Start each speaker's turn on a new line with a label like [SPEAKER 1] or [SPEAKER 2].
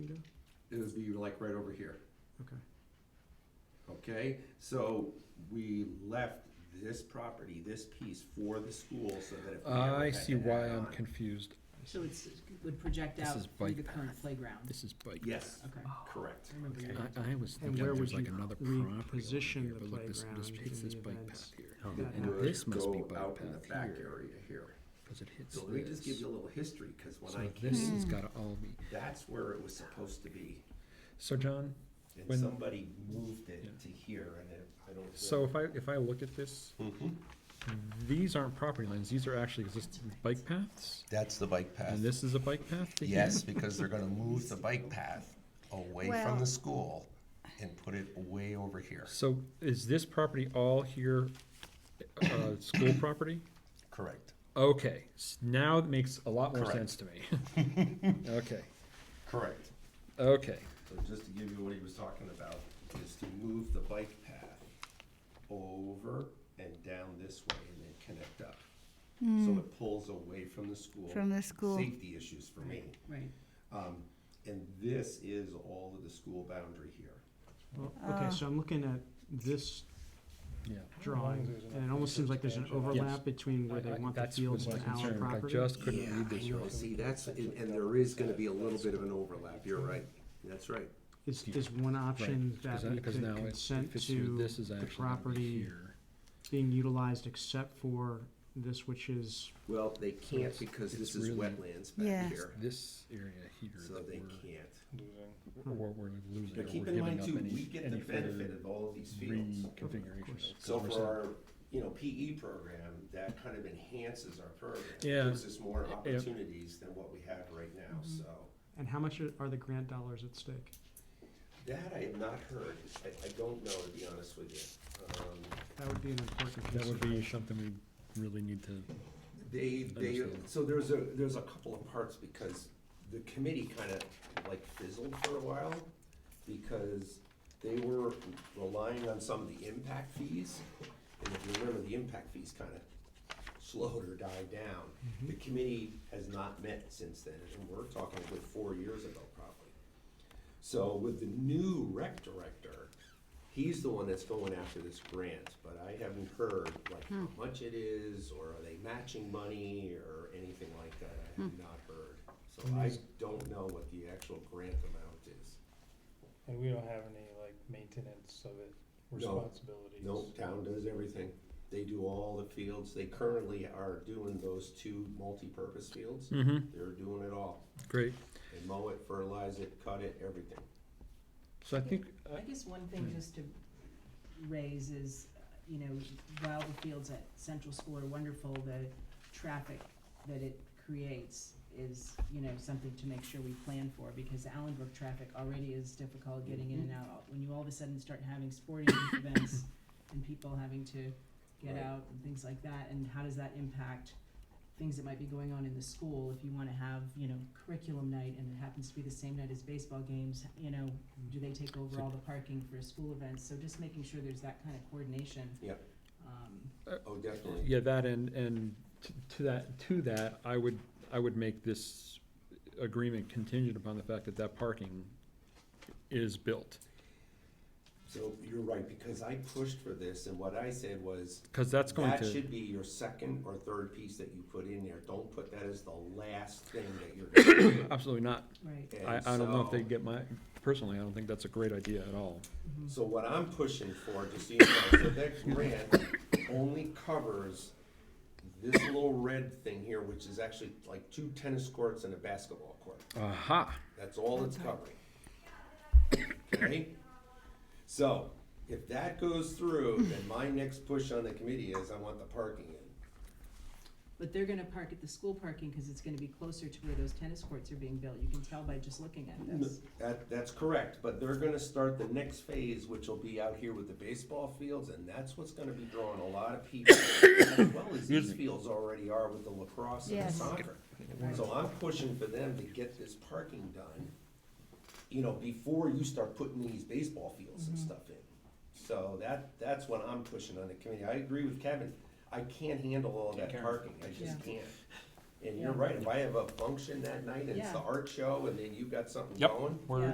[SPEAKER 1] it would be like right over here.
[SPEAKER 2] Okay.
[SPEAKER 1] Okay, so we left this property, this piece for the school so that if. we ever
[SPEAKER 3] I
[SPEAKER 1] had
[SPEAKER 3] see
[SPEAKER 1] to
[SPEAKER 3] why
[SPEAKER 1] add
[SPEAKER 3] I'm
[SPEAKER 1] on-
[SPEAKER 3] confused.
[SPEAKER 4] So it's, would project
[SPEAKER 3] This
[SPEAKER 4] out
[SPEAKER 3] is
[SPEAKER 4] through
[SPEAKER 3] bike
[SPEAKER 4] the current playground?
[SPEAKER 3] This is bike.
[SPEAKER 1] Yes,
[SPEAKER 4] Okay.
[SPEAKER 1] correct.
[SPEAKER 4] I remember
[SPEAKER 3] Okay.
[SPEAKER 4] that.
[SPEAKER 3] I, I was
[SPEAKER 2] And
[SPEAKER 3] thinking
[SPEAKER 2] where
[SPEAKER 3] there's
[SPEAKER 2] would
[SPEAKER 3] like
[SPEAKER 2] you
[SPEAKER 3] another property over
[SPEAKER 2] reposition
[SPEAKER 3] here,
[SPEAKER 2] the
[SPEAKER 3] but look, this, this
[SPEAKER 2] playground
[SPEAKER 3] hits
[SPEAKER 2] in
[SPEAKER 3] this
[SPEAKER 2] the
[SPEAKER 3] bike
[SPEAKER 2] event
[SPEAKER 3] path here.
[SPEAKER 2] Oh. that
[SPEAKER 3] Um, And
[SPEAKER 2] would
[SPEAKER 3] this must be
[SPEAKER 1] Go out
[SPEAKER 3] bike
[SPEAKER 1] in the
[SPEAKER 3] path
[SPEAKER 1] back
[SPEAKER 3] here,
[SPEAKER 1] area here.
[SPEAKER 3] because it hits
[SPEAKER 1] So let me just give
[SPEAKER 3] this.
[SPEAKER 1] you a little history, because when I
[SPEAKER 3] So
[SPEAKER 1] came,
[SPEAKER 3] this has gotta all be,
[SPEAKER 1] that's where it was supposed to be.
[SPEAKER 3] so John,
[SPEAKER 1] And
[SPEAKER 3] When-
[SPEAKER 1] somebody moved
[SPEAKER 3] Yeah.
[SPEAKER 1] it to here and it, I don't.
[SPEAKER 3] so if I, if I look at this,
[SPEAKER 1] Mhm.
[SPEAKER 3] these aren't property lines, these are actually existing bike paths?
[SPEAKER 1] That's the bike path.
[SPEAKER 3] And this is a bike path? to here?
[SPEAKER 1] Yes, because they're gonna move the bike path away from
[SPEAKER 5] Well-
[SPEAKER 1] the school and put it way over here.
[SPEAKER 3] So is this property all here, uh, school property?
[SPEAKER 1] Correct,
[SPEAKER 3] Okay, s- now it makes a lot more
[SPEAKER 1] Correct.
[SPEAKER 3] sense to me. Okay,
[SPEAKER 1] correct.
[SPEAKER 3] okay.
[SPEAKER 1] So just to give you what he was talking about, is to move the bike path over and down this way and then connect up. So it pulls away from the school.
[SPEAKER 5] Hmm. From the school.
[SPEAKER 1] Safety issues for me.
[SPEAKER 4] Right.
[SPEAKER 1] Um, and this is all of the school boundary here.
[SPEAKER 2] Well, Oh, okay, so I'm looking at this
[SPEAKER 3] Yeah.
[SPEAKER 2] drawing, and it almost seems like there's an overlap between where they
[SPEAKER 3] I- I-
[SPEAKER 2] want the
[SPEAKER 3] that's
[SPEAKER 2] fields
[SPEAKER 3] was
[SPEAKER 2] and
[SPEAKER 3] my
[SPEAKER 2] our
[SPEAKER 3] concern.
[SPEAKER 2] property.
[SPEAKER 3] I just couldn't read
[SPEAKER 1] I
[SPEAKER 3] this
[SPEAKER 1] know.
[SPEAKER 3] right.
[SPEAKER 1] See, that's, and, and there is gonna be a little bit of an overlap, you're right, that's right.
[SPEAKER 2] Is, is one option
[SPEAKER 3] Right, 'cause
[SPEAKER 2] that
[SPEAKER 3] I-
[SPEAKER 2] we
[SPEAKER 3] 'cause
[SPEAKER 2] could
[SPEAKER 3] now it- it
[SPEAKER 2] consent
[SPEAKER 3] fits through.
[SPEAKER 2] to
[SPEAKER 3] This is
[SPEAKER 2] the
[SPEAKER 3] actually gonna be
[SPEAKER 2] property
[SPEAKER 3] here.
[SPEAKER 2] being utilized except for this, which is,
[SPEAKER 1] Well, they can't
[SPEAKER 3] it's-
[SPEAKER 1] because
[SPEAKER 3] it's
[SPEAKER 1] this is
[SPEAKER 3] really-
[SPEAKER 1] wetlands
[SPEAKER 5] Yeah.
[SPEAKER 1] back here,
[SPEAKER 3] This area here
[SPEAKER 1] so
[SPEAKER 3] that
[SPEAKER 1] they
[SPEAKER 3] we're,
[SPEAKER 1] can't.
[SPEAKER 3] we're, we're losing, or
[SPEAKER 1] But keep
[SPEAKER 3] we're
[SPEAKER 1] in
[SPEAKER 3] giving
[SPEAKER 1] mind
[SPEAKER 3] up
[SPEAKER 1] too, we
[SPEAKER 3] any,
[SPEAKER 1] get the
[SPEAKER 3] any further
[SPEAKER 1] benefit of all of these fields.
[SPEAKER 3] reconfiguration.
[SPEAKER 1] So for our, you know, PE program, that kind of enhances our program.
[SPEAKER 3] Yeah.
[SPEAKER 1] Gives us more
[SPEAKER 3] Yeah.
[SPEAKER 1] opportunities than what we have right now, so.
[SPEAKER 2] and how much are the grant dollars at stake?
[SPEAKER 1] That I have not heard, I, I don't know, to be honest with you. Um,
[SPEAKER 2] That would be an important
[SPEAKER 3] That would be
[SPEAKER 2] consideration.
[SPEAKER 3] something we really need to,
[SPEAKER 1] They, they,
[SPEAKER 3] Understand.
[SPEAKER 1] so there's a, there's a couple of parts because the committee kind of like fizzled for a while because they were relying on some of the impact fees. And if you remember, the impact fees kind of slowed or died down. The committee has not met since then, and we're talking a good four years ago probably. So with the new rec director, he's the one that's going after this grant, but I haven't heard like how much it is, or are they matching money, or anything like that, I have not heard. So I don't know what the actual grant amount is.
[SPEAKER 6] And we don't have any like maintenance of it responsibilities.
[SPEAKER 1] No, town does everything, they do all the fields, they currently are doing those two multi-purpose fields,
[SPEAKER 2] Mm-hmm.
[SPEAKER 3] Mhm.
[SPEAKER 1] they're doing it all.
[SPEAKER 3] great.
[SPEAKER 1] They mow it, fertilize it, cut it, everything.
[SPEAKER 3] So I think, uh,
[SPEAKER 4] I guess one thing just to raise is, uh, you know, while the fields at Central School are wonderful, the traffic that it creates is, you know, something to make sure we plan for, because Allenbrook traffic already is difficult getting in and out. When you all of a sudden start having sporting events and people having to get
[SPEAKER 1] Right.
[SPEAKER 4] out and things like that, and how does that impact things that might be going on in the school, if you wanna have, you know, curriculum night, and it happens to be the same night as baseball games, you know,
[SPEAKER 1] Mm-hmm.
[SPEAKER 4] do they take over all the parking for school events, so just making sure there's that kind of coordination.
[SPEAKER 1] Yep.
[SPEAKER 4] Um,
[SPEAKER 1] Oh, definitely.
[SPEAKER 3] yeah, that and, and t- to that, to that, I would, I would make this agreement contingent upon the fact that that parking is built.
[SPEAKER 1] So you're right, because I pushed for this, and what I said was,
[SPEAKER 3] Cause that's going
[SPEAKER 1] that
[SPEAKER 3] to,
[SPEAKER 1] should be your second or third piece that you put in there. Don't put that as the last thing that you're gonna do.
[SPEAKER 3] absolutely not.
[SPEAKER 4] right,
[SPEAKER 3] I,
[SPEAKER 1] And
[SPEAKER 3] I don't know if
[SPEAKER 1] so-
[SPEAKER 3] they get my, personally, I don't think that's a great idea at all.
[SPEAKER 1] So what I'm pushing for, just so you know, so that grant only covers this little red thing here, which is actually like two tennis courts and a basketball court.
[SPEAKER 3] Aha,
[SPEAKER 1] That's all it's covering. Okay? So, if that goes through, then my next push on the committee is I want the parking in.
[SPEAKER 4] but they're gonna park at the school parking, cause it's gonna be closer to where those tennis courts are being built, you can tell by just looking at this.
[SPEAKER 1] That, that's correct, but they're gonna start the next phase, which will be out here with the baseball fields, and that's what's gonna be drawing a lot of people. As well as these fields already are with the lacrosse and the
[SPEAKER 5] Yes.
[SPEAKER 1] soccer. So I'm pushing for them to get this parking done, you know, before you start putting these baseball fields and stuff in. So that, that's what I'm pushing on the committee. I agree with Kevin, I can't handle all that parking, I
[SPEAKER 4] Yeah.
[SPEAKER 1] just can't. And you're right, if I have a function that night and it's the
[SPEAKER 4] Yeah.
[SPEAKER 1] art show and then you've got something
[SPEAKER 3] Yep.
[SPEAKER 1] going,
[SPEAKER 3] we're,